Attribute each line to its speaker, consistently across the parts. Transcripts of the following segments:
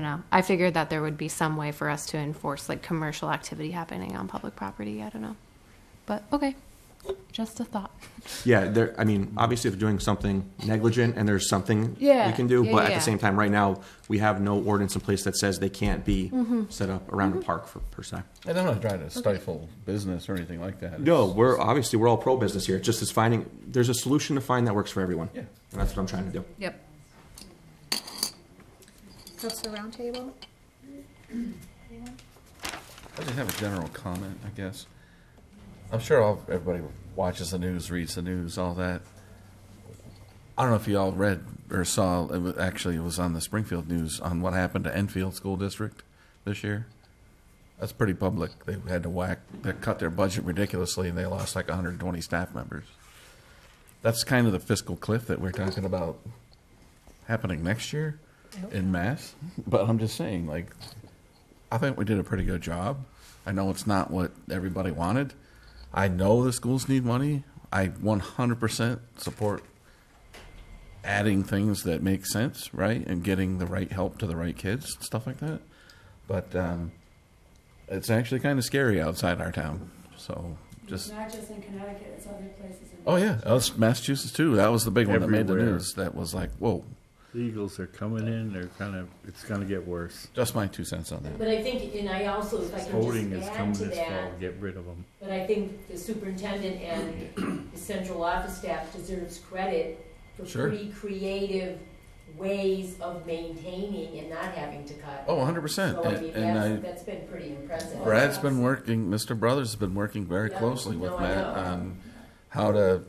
Speaker 1: know. I figured that there would be some way for us to enforce like commercial activity happening on public property. I don't know. But okay. Just a thought.
Speaker 2: Yeah, there, I mean, obviously, if they're doing something negligent and there's something
Speaker 1: Yeah,
Speaker 2: we can do,
Speaker 1: yeah,
Speaker 2: but at
Speaker 1: yeah.
Speaker 2: the same time, right now, we have no ordinance in place that says they can't be
Speaker 1: Mm-hmm.
Speaker 2: set up around a park for, per se.
Speaker 3: And I'm not trying to stifle business or anything like that.
Speaker 2: No,
Speaker 3: It's-
Speaker 2: we're obviously we're all pro business here. It's just is finding there's a solution to find that works for everyone.
Speaker 3: Yeah.
Speaker 2: and that's what I'm trying to do.
Speaker 1: Yep.
Speaker 4: Counselor Roundtable?
Speaker 3: I just have a general comment, I guess. I'm sure all, everybody watches the news, reads the news, all that. I don't know if you all read or saw, it was, actually, it was on the Springfield News on what happened to Enfield School District this year. That's pretty public. They had to whack, they cut their budget ridiculously and they lost like 120 staff members. That's kind of the fiscal cliff that we're talking about happening next year in mass. But I'm just saying, like, I think we did a pretty good job. I know it's not what everybody wanted. I know the schools need money. I 100% support adding things that make sense, right? And getting the right help to the right kids, stuff like that. But um, it's actually kind of scary outside our town. So just.
Speaker 5: Not just in Connecticut, it's other places. in-
Speaker 3: Oh, yeah. That was Massachusetts, too. That was the big one that made the
Speaker 6: Everywhere.
Speaker 3: news. That was like, whoa,
Speaker 6: The Eagles are coming in, they're kind of, it's gonna get worse.
Speaker 3: just my two cents on that.
Speaker 5: But I think, and I also, if I
Speaker 6: Voting
Speaker 5: can
Speaker 6: is
Speaker 5: just add
Speaker 6: coming
Speaker 5: to
Speaker 6: this fall,
Speaker 5: that,
Speaker 6: get rid of them.
Speaker 5: but I think the superintendent and the central office staff deserves credit for
Speaker 3: Sure.
Speaker 5: pretty creative ways of maintaining and not having to cut.
Speaker 3: Oh, 100%.
Speaker 5: So I
Speaker 3: And,
Speaker 5: mean,
Speaker 3: and I,
Speaker 5: that's, that's been pretty impressive.
Speaker 3: Brad's been working, Mr. Brothers has been working very
Speaker 5: Yeah,
Speaker 3: closely with
Speaker 5: no, I
Speaker 3: Matt
Speaker 5: know.
Speaker 3: on how to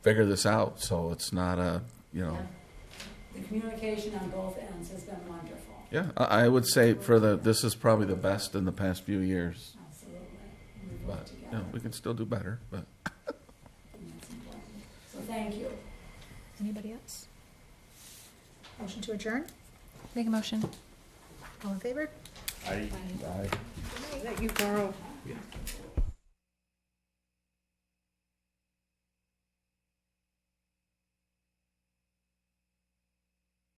Speaker 3: figure this out, so it's not a, you know,
Speaker 5: Yeah.
Speaker 7: The communication on both ends has been wonderful,
Speaker 3: yeah, I, I would say for the, this is probably the best in the past few years,
Speaker 7: absolutely. We work
Speaker 3: but, you
Speaker 7: together,
Speaker 3: know, we can still do better, but.
Speaker 7: and that's important. So thank you.
Speaker 4: Anybody else? Motion to adjourn?
Speaker 1: Make a motion.
Speaker 4: All in favor?
Speaker 6: I,
Speaker 4: Let you borrow.